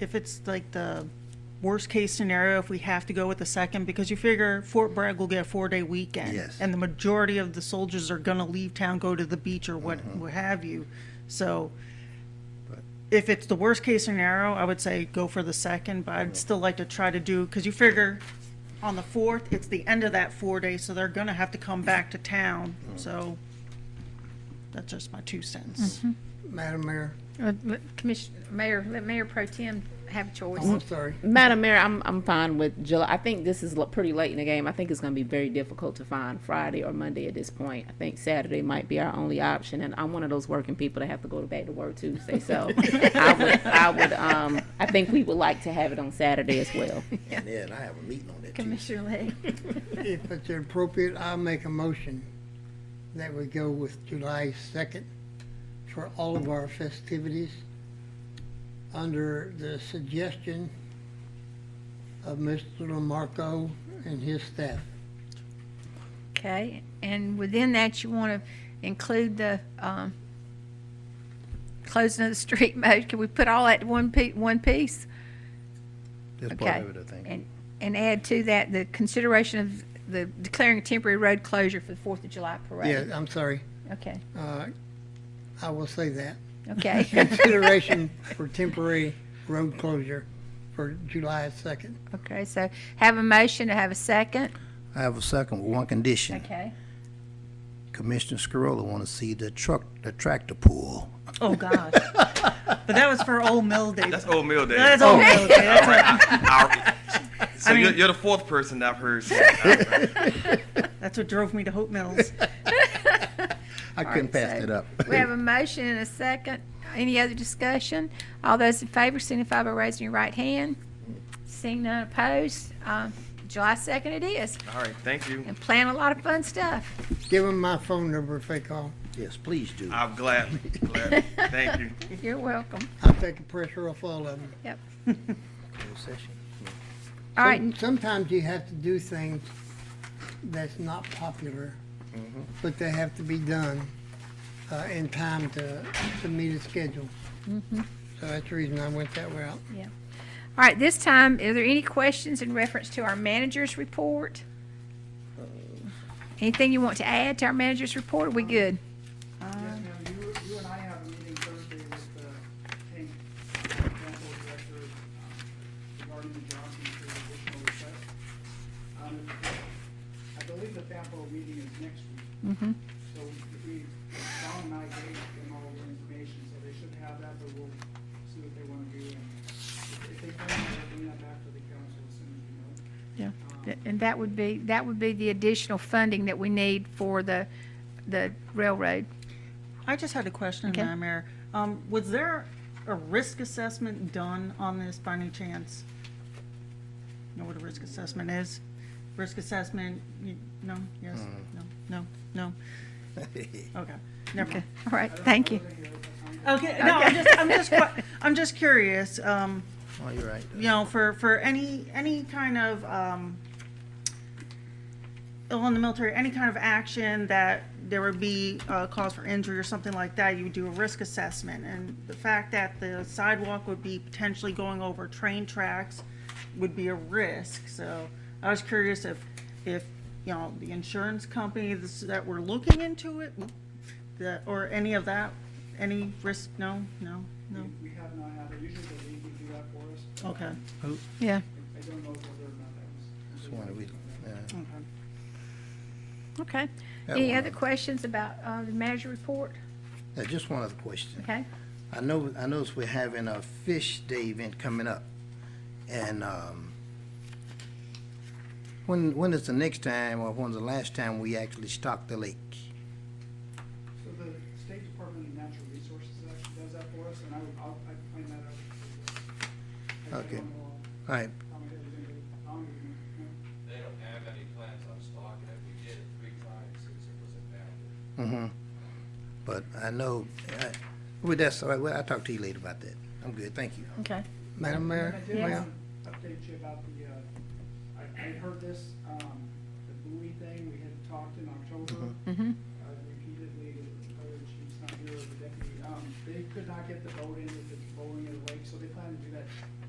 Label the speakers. Speaker 1: if it's like the worst case scenario, if we have to go with the second, because you figure Fort Bragg will get a four day weekend.
Speaker 2: Yes.
Speaker 1: And the majority of the soldiers are gonna leave town, go to the beach or what, what have you. So if it's the worst case scenario, I would say go for the second, but I'd still like to try to do, because you figure on the fourth, it's the end of that four day, so they're gonna have to come back to town, so that's just my two cents.
Speaker 3: Madam Mayor,
Speaker 4: Uh, let Commissioner, Mayor, let Mayor Pro Tem have a
Speaker 3: I'm
Speaker 4: choice.
Speaker 3: sorry.
Speaker 5: Madam Mayor, I'm, I'm fine with July. I think this is lo- pretty late in the game. I think it's gonna be very difficult to find Friday or Monday at this point. I think Saturday might be our only option, and I'm one of those working people that have to go to back to work Tuesday, so I would, I would, um, I think we would like to have it on Saturday as well.
Speaker 2: And then I have a meeting on that Tuesday.
Speaker 4: Commissioner Lay,
Speaker 3: If it's appropriate, I'll make a motion that we go with July 2nd for all of our festivities under the suggestion of Mr. Lamarco and his staff.
Speaker 4: okay, and within that, you want to include the, um, closing of the street mode, can we put all that in one pe- one piece?
Speaker 2: That's
Speaker 4: Okay.
Speaker 2: part of it, I think.
Speaker 4: And, and add to that the consideration of the declaring a temporary road closure for the Fourth of July
Speaker 3: Yeah,
Speaker 4: parade.
Speaker 3: I'm sorry.
Speaker 4: Okay,
Speaker 3: Uh, I will say that.
Speaker 4: okay,
Speaker 3: Consideration for temporary road closure for July 2nd.
Speaker 4: okay, so have a motion to have a second,
Speaker 2: I have a second with one condition.
Speaker 4: okay?
Speaker 2: Commissioner Scarola want to see the truck, the tractor pull.
Speaker 1: Oh, gosh. But that was for Old Mill Day.
Speaker 6: That's old Mill Day. Oh.
Speaker 1: That's
Speaker 4: Oh.
Speaker 1: Old Mill Day, that's a-
Speaker 6: I- so
Speaker 1: I mean-
Speaker 6: you're, you're the fourth person I've heard. say that.
Speaker 1: That's what drove me to Hope Mills.
Speaker 2: I couldn't pass that up.
Speaker 4: We have a motion and a second. Any other discussion? All those in favor signify by raising your right hand. Seeing none opposed, um, July 2nd it is.
Speaker 6: All right, thank you.
Speaker 4: And plan a lot of fun stuff.
Speaker 3: Give them my phone number if they call.
Speaker 2: Yes, please do.
Speaker 6: I'm glad. glad. Thank you.
Speaker 4: You're welcome.
Speaker 3: I'll take the pressure off all of them.
Speaker 2: Closed session.
Speaker 4: All right,
Speaker 3: Some- Sometimes you have to do things that's not popular, but they have to be done uh, in time to, to meet a schedule.
Speaker 4: Mm-hmm.
Speaker 3: So that's the reason I went that route.
Speaker 4: all right, this time, are there any questions in reference to our manager's report? Anything you want to add to our manager's report? Are we good?
Speaker 7: Yes, ma'am, you, you and I have a meeting Thursday with, uh, Hank, Council Director, um, regarding the Johnson Street additional request. Um, I believe the FAMPO meeting is next week. So if we, Don and I gave them all the information, so they should have that, but we'll see what they wanna do. And if if they come, we'll bring that back to the council as soon as we
Speaker 4: Yeah.
Speaker 7: know.
Speaker 4: And that would be, that would be the additional funding that we need for the, the railroad.
Speaker 1: I just had a question,
Speaker 4: Okay.
Speaker 1: Madam Mayor. Um, was there a risk assessment done on this by any chance? Know what a risk assessment is? Risk assessment, you, no, yes, no, no, no. Okay, never
Speaker 4: Okay,
Speaker 1: mind.
Speaker 4: all right, thank you.
Speaker 1: Okay, no, I'm just, I'm just, qui- I'm just curious, um,
Speaker 2: Oh, you're right.
Speaker 1: you know, for, for any, any kind of, um, well, in the military, any kind of action that there would be a cause for injury or something like that, you would do a risk assessment. And the fact that the sidewalk would be potentially going over train tracks would be a risk. So I was curious if, if, you know, the insurance companies that were looking into it, that, or any of that, any risk, no, no, no,
Speaker 7: We, we have not had, it. usually the league would do that for us.
Speaker 1: okay.
Speaker 4: Yeah,
Speaker 7: I don't know whether or not that was.
Speaker 2: That's one of the reasons, yeah.
Speaker 4: okay.
Speaker 2: That
Speaker 4: Any
Speaker 2: one.
Speaker 4: other questions about uh, the manager report?
Speaker 2: Now, just one other question.
Speaker 4: Okay,
Speaker 2: I know, I noticed we're having a Fish Day event coming up. And, um, when, when is the next time or when's the last time we actually stocked the lake?
Speaker 7: So the State Department of Natural Resources actually does that for us, and I, would- I'll, I can find that out. I
Speaker 2: Okay.
Speaker 7: don't know
Speaker 2: All right,
Speaker 7: how much it was gonna be. I don't even know.
Speaker 8: They don't have any plans on stocking it. We did it three times since it was impounded.
Speaker 2: Mm-hmm. But I know, I, well, that's all right. Well, I'll talk to you later about that. I'm good, thank you.
Speaker 4: okay.
Speaker 3: Madam Mayor?
Speaker 7: I did
Speaker 4: Yes.
Speaker 7: want to update you about the, uh, I, I heard this, um, the buoy thing, we had talked in October.
Speaker 4: Mhm.
Speaker 7: Uh, repeatedly, the other chief's not here, the deputy, um, they could not get the boat in, if it's rolling in the lake, so they plan to do that